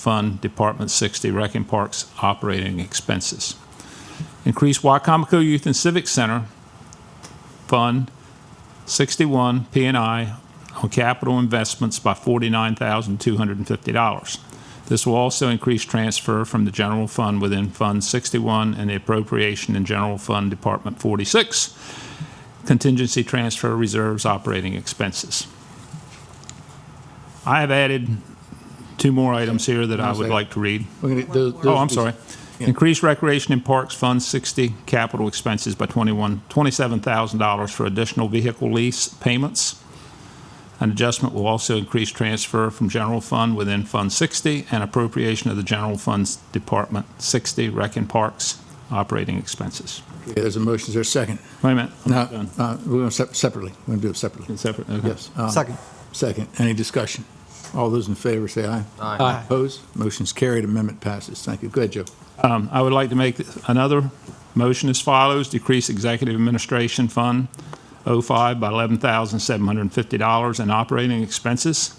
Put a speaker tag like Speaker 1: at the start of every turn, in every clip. Speaker 1: fund Department 60 Rec and Parks operating expenses. Increase Wycomico Youth and Civic Center Fund 61 P and I on capital investments by $49,250. This will also increase transfer from the general fund within Fund 61 and the appropriation in General Fund Department 46 contingency transfer reserves operating expenses. I have added two more items here that I would like to read.
Speaker 2: We're gonna- those-
Speaker 1: Oh,
Speaker 2: those-
Speaker 1: I'm sorry. Increase Recreation and Parks Fund 60 capital expenses by 21, $27,000 for additional vehicle lease payments. An adjustment will also increase transfer from general fund within Fund 60 and appropriation of the general funds Department 60 Rec and Parks operating expenses.
Speaker 2: Okay, There's a motion, is there a second?
Speaker 1: Wait a minute. I'm
Speaker 2: No,
Speaker 1: not done.
Speaker 2: uh, we're going to separately, we're going to do it separately.
Speaker 1: Separate, okay.
Speaker 2: Yes. um,
Speaker 3: Second.
Speaker 2: Second, any discussion? All those in favor say aye.
Speaker 3: Aye.
Speaker 2: Opposed? Motion's carried, amendment passes. Thank you. Go ahead, Joe.
Speaker 1: Um, I would like to make another motion as follows, decrease Executive Administration Fund 05 by $11,750 in operating expenses,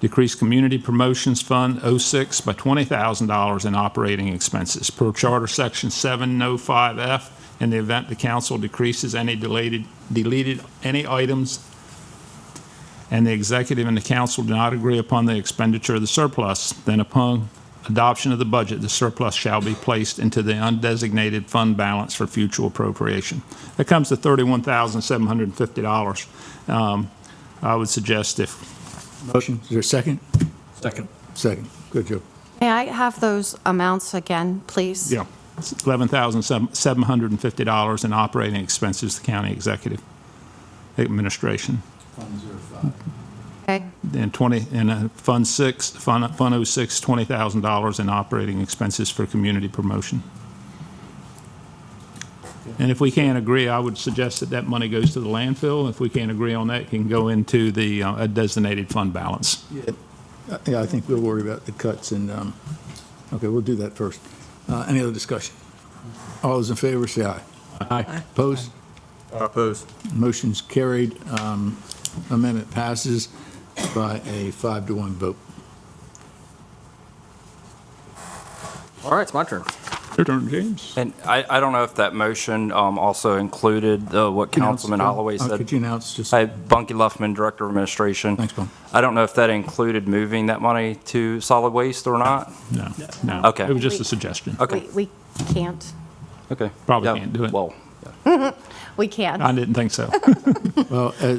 Speaker 1: decrease Community Promotions Fund 06 by $20,000 in operating expenses per Charter Section 705F in the event the council decreases any deleted, deleted any items and the executive and the council do not agree upon the expenditure of the surplus, then upon adoption of the budget, the surplus shall be placed into the undesignated fund balance for future appropriation. That comes to $31,750. Um, I would suggest if
Speaker 2: Motion, is there a second?
Speaker 3: Second.
Speaker 2: Second. Good, Joe.
Speaker 4: May I have those amounts again, please?
Speaker 1: Yeah, it's $11,750 in operating expenses, the county executive administration.
Speaker 4: Okay,
Speaker 1: And 20, and uh, Fund 6, Fund Fund 06, $20,000 in operating expenses for community promotion. And if we can't agree, I would suggest that that money goes to the landfill. If we can't agree on that, it can go into the uh, designated fund balance.
Speaker 2: Uh, Yeah, I think we'll worry about the cuts and, um, okay, we'll do that first. Uh, Any other discussion? All those in favor say aye. Aye. Opposed?
Speaker 3: Opposed.
Speaker 2: Motion's carried. Um, Amendment passes by a five to one vote.
Speaker 5: All right, it's my turn.
Speaker 1: Your turn, James.
Speaker 5: And I, I don't know if that motion um, also included uh, what Councilman
Speaker 2: Announce, Bill.
Speaker 5: Holloway
Speaker 2: Uh, Could
Speaker 5: said.
Speaker 2: you announce just,
Speaker 5: Hi, Bunky Luffman, Director of Administration.
Speaker 2: Thanks, Bill.
Speaker 5: I don't know if that included moving that money to solid waste or not.
Speaker 1: No, no.
Speaker 5: Okay.
Speaker 1: It was just a suggestion.
Speaker 5: Okay.
Speaker 4: We- we can't,
Speaker 5: Okay.
Speaker 1: Probably
Speaker 5: Yeah,
Speaker 1: can't do it.
Speaker 5: Well,
Speaker 4: we
Speaker 1: I
Speaker 4: can't.
Speaker 1: didn't think so.
Speaker 2: well, uh,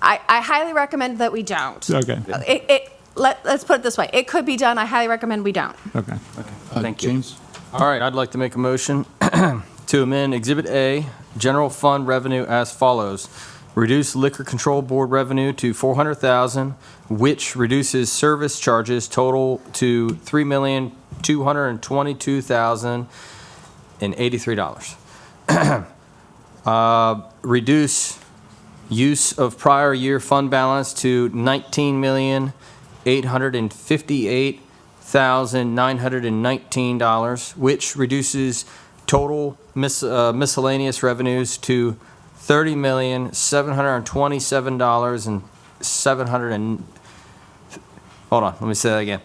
Speaker 4: I, I highly recommend that we don't.
Speaker 1: Okay,
Speaker 4: It, it, let, let's put it this way, it could be done, I highly recommend we don't.
Speaker 1: okay.
Speaker 2: uh,
Speaker 5: thank you.
Speaker 2: James?
Speaker 3: All right, I'd like to make a motion to amend Exhibit A, general fund revenue as follows. Reduce liquor control board revenue to 400,000, which reduces service charges total to $3,222,083. Uh, Reduce use of prior year fund balance to nineteen million eight hundred and fifty-eight thousand nine hundred and nineteen dollars, which reduces total mis- uh, miscellaneous revenues to thirty million seven hundred and twenty-seven dollars and seven hundred and hold on, let me say that again.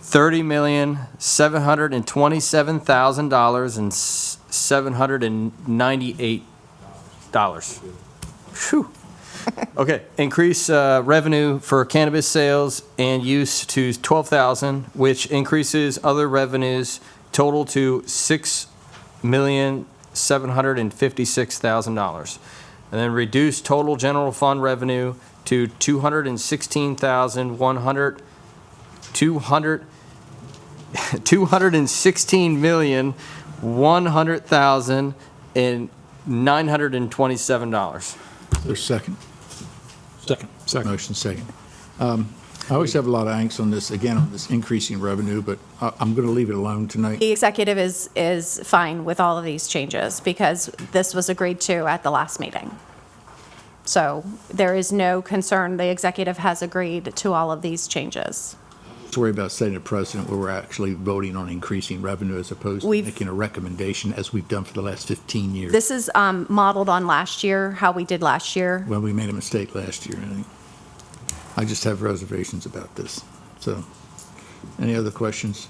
Speaker 3: Thirty million seven hundred and twenty-seven thousand dollars and seven hundred and ninety-eight dollars. Phew. Okay, increase uh, revenue for cannabis sales and use to 12,000, which increases other revenues total to $6,756,000. And then reduce total general fund revenue to 216,100, 200, 216 million, dollars.
Speaker 2: There's second.
Speaker 1: Second. Second.
Speaker 2: Motion second. Um, I always have a lot of angst on this, again, on this increasing revenue, but I- I'm going to leave it alone tonight.
Speaker 4: The executive is, is fine with all of these changes because this was agreed to at the last meeting. So there is no concern, the executive has agreed to all of these changes.
Speaker 2: Let's worry about setting a precedent where we're actually voting on increasing revenue as opposed to
Speaker 4: We've-
Speaker 2: making a recommendation as we've done for the last 15 years,
Speaker 4: This is um, modeled on last year, how we did last year.
Speaker 2: when we made a mistake last year. I think. I just have reservations about this, so. Any other questions?